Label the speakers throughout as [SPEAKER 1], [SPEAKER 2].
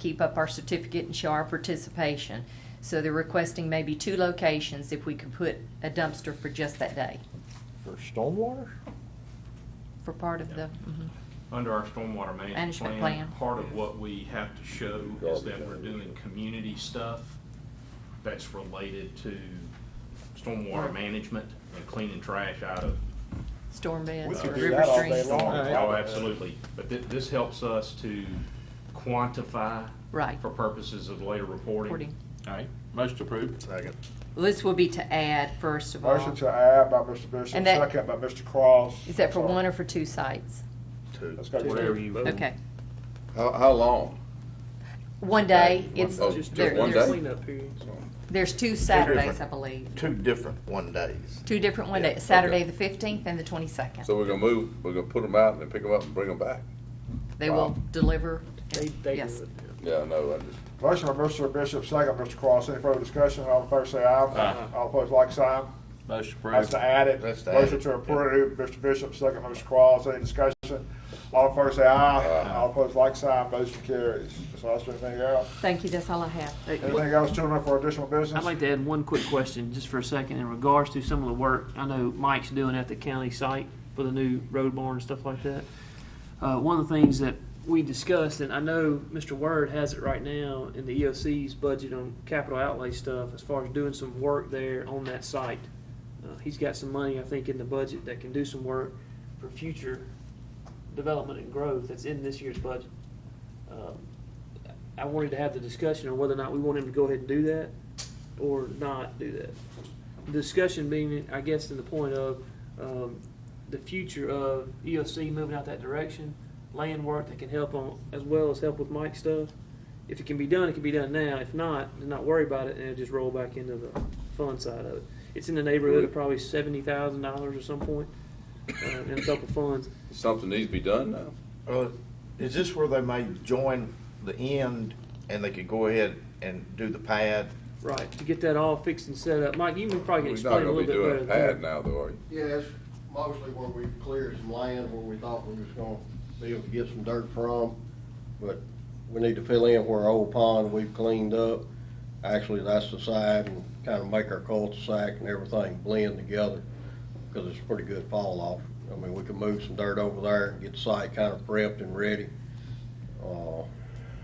[SPEAKER 1] keep up our certificate and show our participation. So they're requesting maybe two locations if we could put a dumpster for just that day,
[SPEAKER 2] For stormwater?
[SPEAKER 1] for part of the, mhm.
[SPEAKER 3] Under our stormwater management
[SPEAKER 1] Management plan.
[SPEAKER 3] plan, part of what we have to show is that we're doing community stuff that's related to stormwater
[SPEAKER 1] Right.
[SPEAKER 3] management and cleaning trash out of.
[SPEAKER 1] storm
[SPEAKER 2] We
[SPEAKER 1] beds
[SPEAKER 2] could
[SPEAKER 1] or
[SPEAKER 2] do
[SPEAKER 1] river
[SPEAKER 2] that all day
[SPEAKER 1] streams.
[SPEAKER 2] long.
[SPEAKER 4] Right.
[SPEAKER 3] Oh, absolutely. But thi- this helps us to quantify.
[SPEAKER 1] Right.
[SPEAKER 3] For purposes of later reporting.
[SPEAKER 1] Reporting.
[SPEAKER 4] All right, most approved.
[SPEAKER 2] Second.
[SPEAKER 1] Well, This will be to add, first of all.
[SPEAKER 5] Motion to add by Mr. Bishop,
[SPEAKER 1] And that-
[SPEAKER 5] second by Mr. Cross.
[SPEAKER 1] Is that for
[SPEAKER 5] Sorry.
[SPEAKER 1] one or for two sites?
[SPEAKER 2] Two.
[SPEAKER 5] Let's go to
[SPEAKER 4] Whatever
[SPEAKER 5] two.
[SPEAKER 4] you-
[SPEAKER 1] Okay.
[SPEAKER 6] How, how long?
[SPEAKER 1] One day, it's,
[SPEAKER 6] Oh, just
[SPEAKER 1] there-
[SPEAKER 6] one
[SPEAKER 1] there's,
[SPEAKER 6] day?
[SPEAKER 1] there's two Saturdays, I
[SPEAKER 2] different.
[SPEAKER 1] believe.
[SPEAKER 2] Two different one days.
[SPEAKER 1] Two different one
[SPEAKER 2] Yeah,
[SPEAKER 1] day, Saturday
[SPEAKER 6] okay.
[SPEAKER 1] the fifteenth and the twenty-second.
[SPEAKER 6] So we're gonna move, we're gonna put them out and then pick them up and bring them back?
[SPEAKER 1] They will
[SPEAKER 6] Wow.
[SPEAKER 1] deliver, yes.
[SPEAKER 6] Yeah, I know, I just,
[SPEAKER 5] Motion by Mr. Bishop, second by Mr. Cross. Any further discussion? All in favor say aye.
[SPEAKER 4] Aye.
[SPEAKER 5] All opposed, like sign.
[SPEAKER 4] Most
[SPEAKER 5] That's
[SPEAKER 4] approved.
[SPEAKER 5] to add it.
[SPEAKER 2] That's to add
[SPEAKER 5] Motion
[SPEAKER 2] it.
[SPEAKER 5] to approve, Mr. Bishop, second by Mr. Cross. Any discussion? All in favor say aye.
[SPEAKER 6] Aye.
[SPEAKER 5] All opposed, like sign. Motion carries. Ms. Oster, anything else?
[SPEAKER 1] Thank you, that's all I have.
[SPEAKER 5] Anything else, children, for additional business?
[SPEAKER 7] I'd like to add one quick question, just for a second, in regards to some of the work I know Mike's doing at the county site for the new road barn and stuff like that. Uh, one of the things that we discussed, and I know Mr. Word has it right now in the EOC's budget on capital outlay stuff, as far as doing some work there on that site. Uh, he's got some money, I think, in the budget that can do some work for future development and growth that's in this year's budget. Um, I wanted to have the discussion on whether or not we want him to go ahead and do that or not do that. Discussion being, I guess, to the point of um, the future of EOC moving out that direction, land work that can help on, as well as help with Mike stuff. If it can be done, it can be done now. If not, then not worry about it and it'll just roll back into the fund side of it. It's in the neighborhood of probably seventy thousand dollars at some point uh, in a couple funds.
[SPEAKER 6] something needs to be done now.
[SPEAKER 2] Well, uh, is this where they may join the end and they could go ahead and do the pad?
[SPEAKER 7] Right, to get that all fixed and set up. Mike, you can probably
[SPEAKER 6] We're
[SPEAKER 7] explain
[SPEAKER 6] not
[SPEAKER 7] a
[SPEAKER 6] gonna
[SPEAKER 7] little
[SPEAKER 6] be
[SPEAKER 7] bit
[SPEAKER 6] doing a
[SPEAKER 7] better.
[SPEAKER 6] pad
[SPEAKER 7] than-
[SPEAKER 6] now though, are you?
[SPEAKER 8] Yeah, that's mostly where we cleared some land where we thought we was gonna be able to get some dirt from. But we need to fill in where old pond we've cleaned up. Actually, that's the side and kind of make our cul-de-sac and everything blend together. Cause it's a pretty good fall off. I mean, we can move some dirt over there and get the site kind of prepped and ready, uh, for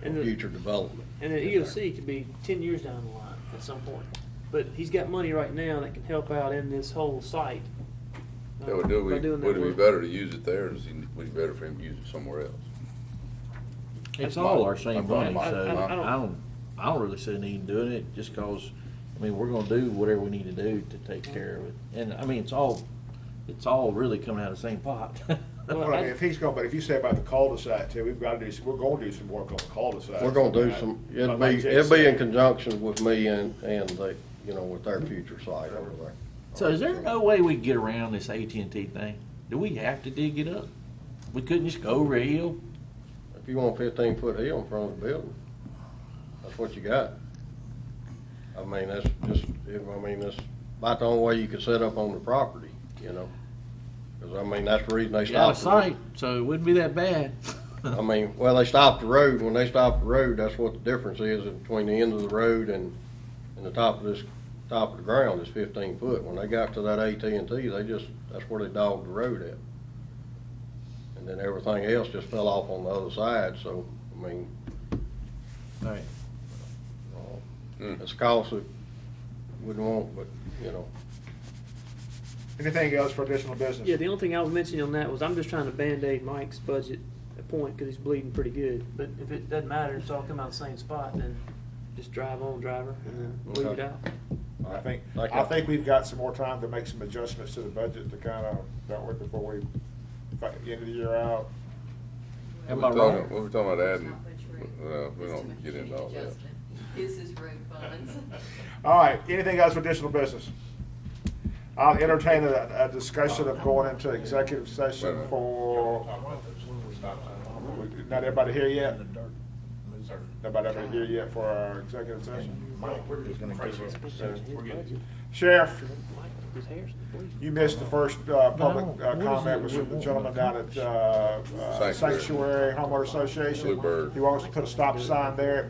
[SPEAKER 7] And the-
[SPEAKER 8] future development.
[SPEAKER 7] And the EOC could be ten years down the line at some point. But he's got money right now that can help out in this whole site. uh,
[SPEAKER 6] Yeah, would do,
[SPEAKER 7] by
[SPEAKER 6] we,
[SPEAKER 7] doing that
[SPEAKER 6] would it be
[SPEAKER 7] work.
[SPEAKER 6] better to use it there, or is it, would it be better for him to use it somewhere else?
[SPEAKER 4] It's all our same
[SPEAKER 6] I'm fine.
[SPEAKER 4] money, so
[SPEAKER 7] I- I- I
[SPEAKER 4] I
[SPEAKER 7] don't-
[SPEAKER 4] don't, I don't really see a need in doing it, just cause, I mean, we're gonna do whatever we need to do to take care of it. And, I mean, it's all, it's all really coming out of the same pot.
[SPEAKER 7] Well,
[SPEAKER 5] Well, I mean,
[SPEAKER 7] I-
[SPEAKER 5] if he's going, but if you say about the cul-de-sac too, we've got to do, some- we're going to do some work on the cul-de-sac.
[SPEAKER 8] We're gonna do some, it'll
[SPEAKER 5] But
[SPEAKER 8] be,
[SPEAKER 5] like Jay
[SPEAKER 8] it'll be in
[SPEAKER 5] said-
[SPEAKER 8] conjunction with me and, and the, you know, with their future site over there.
[SPEAKER 4] So is there no way we can get around this AT&T thing? Do we have to dig it up? We couldn't just go over a hill?
[SPEAKER 8] If you want fifteen foot hill in front of the building, that's what you got. I mean, that's just, I mean, that's about the only way you could set up on the property, you know? Cause I mean, that's the reason they
[SPEAKER 4] It's out of
[SPEAKER 8] stopped. the road.
[SPEAKER 4] sight, so it wouldn't be that bad.
[SPEAKER 8] I mean, well, they stopped the road, when they stopped the road, that's what the difference is between the end of the road and, and the top of this, top of the ground is fifteen foot. When they got to that AT&T, they just, that's where they dogged the road at. And then everything else just fell off on the other side, so, I mean,
[SPEAKER 4] All right.
[SPEAKER 6] Hmm.
[SPEAKER 8] It's a cost that wouldn't want, but, you know,
[SPEAKER 5] Anything else for additional business?
[SPEAKER 7] Yeah, the only thing I was mentioning on that was I'm just trying to Band-Aid Mike's budget at point because he's bleeding pretty good. But if it doesn't matter, it's all come out the same spot, then just drive on, driver, and then leave it
[SPEAKER 8] Okay.
[SPEAKER 7] out.
[SPEAKER 5] I think,
[SPEAKER 8] Like
[SPEAKER 5] I
[SPEAKER 8] a-
[SPEAKER 5] think we've got some more time to make some adjustments to the budget to kind of, that way before we, fi- end of the year out.
[SPEAKER 4] Am I
[SPEAKER 6] We're talking,
[SPEAKER 4] wrong?
[SPEAKER 6] we're talking about adding,
[SPEAKER 9] It's
[SPEAKER 6] well, we don't get into all that.
[SPEAKER 9] This is road funds.
[SPEAKER 5] All right, anything else for additional business? I'll entertain a, a discussion of going into executive session for, not everybody here yet? Nobody ever here yet for our executive session?
[SPEAKER 7] His budget,
[SPEAKER 5] Sheriff,
[SPEAKER 7] Mike, his hair's bleeding.
[SPEAKER 5] you missed the first, uh, public
[SPEAKER 4] No,
[SPEAKER 5] uh,
[SPEAKER 4] what is
[SPEAKER 5] comment
[SPEAKER 4] it
[SPEAKER 5] was
[SPEAKER 4] we
[SPEAKER 5] from the
[SPEAKER 4] want?
[SPEAKER 5] gentleman down at, uh, uh,
[SPEAKER 6] Sanctuary.
[SPEAKER 5] Sanctuary Homeowner Association.
[SPEAKER 6] Bluebird.
[SPEAKER 5] He wants to put a stop sign there